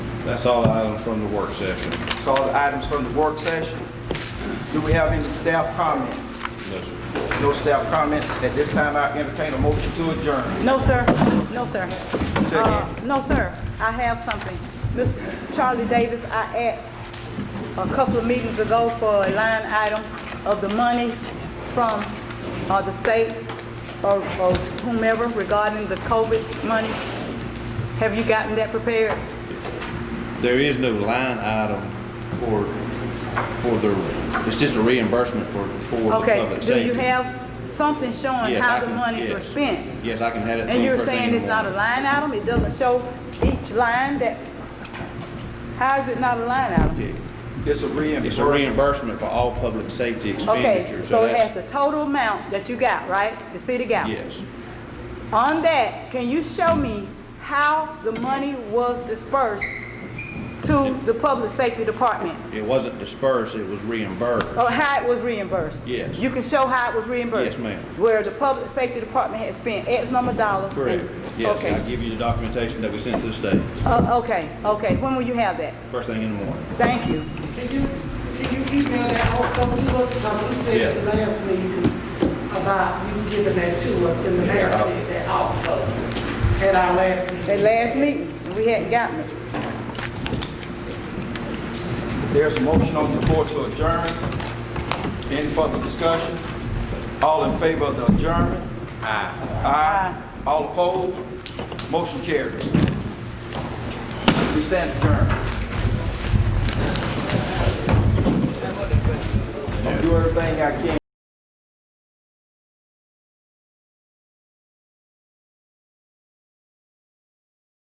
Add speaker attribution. Speaker 1: That's all items from the work session.
Speaker 2: That's all the items from the work session. Do we have any staff comments?
Speaker 1: Yes, sir.
Speaker 2: No staff comments. At this time, I entertain a motion to adjourn.
Speaker 3: No, sir. No, sir.
Speaker 2: Say
Speaker 3: Uh,
Speaker 2: again.
Speaker 3: No, sir. I have something. Mrs. Charlie Davis, I asked a couple of meetings ago for a line item of the monies from uh, the state or or whomever regarding the COVID monies. Have you gotten that prepared?
Speaker 1: There is no line item for, for the, it's just a reimbursement for, for the public
Speaker 3: Okay,
Speaker 1: safety.
Speaker 3: do you have something showing
Speaker 1: Yes, I
Speaker 3: how the
Speaker 1: can-
Speaker 3: monies were
Speaker 1: yes.
Speaker 3: spent?
Speaker 1: Yes, I can have it. to
Speaker 3: And
Speaker 1: you
Speaker 3: you're
Speaker 1: first thing in
Speaker 3: saying
Speaker 1: the
Speaker 3: it's not a
Speaker 1: morning.
Speaker 3: line item? It doesn't show each line that, how is it not a line item?
Speaker 2: It's a reimbursement.
Speaker 1: It's a reimbursement for all public safety
Speaker 3: Okay,
Speaker 1: expenditures.
Speaker 3: so it
Speaker 1: that's-
Speaker 3: has the total amount that you got, right? The city got?
Speaker 1: Yes.
Speaker 3: On that, can you show me how the money was dispersed to the public safety department?
Speaker 1: It wasn't dispersed, it was reimbursed.
Speaker 3: Or how it was reimbursed?
Speaker 1: Yes.
Speaker 3: You can show how it was reimbursed?
Speaker 1: Yes, ma'am.
Speaker 3: Where the public safety department had spent X number of dollars? and-
Speaker 1: Correct. Yes,
Speaker 3: Okay,
Speaker 1: I'll give you the documentation that we sent to the state,
Speaker 3: Uh, okay, okay. When will you have that?
Speaker 1: first thing in the morning.
Speaker 3: Thank you.
Speaker 4: Can you, can you email that also to us, because we said at the last meeting about you giving that to us, and the mayor said that also at our last meeting.
Speaker 3: That last meeting, we hadn't gotten it.
Speaker 2: There's a motion on the floor to adjourn. Any further discussion? All in favor of the adjournment? Aye. Aye. All opposed? Motion carries. We stand adjourned. I'll do everything I can.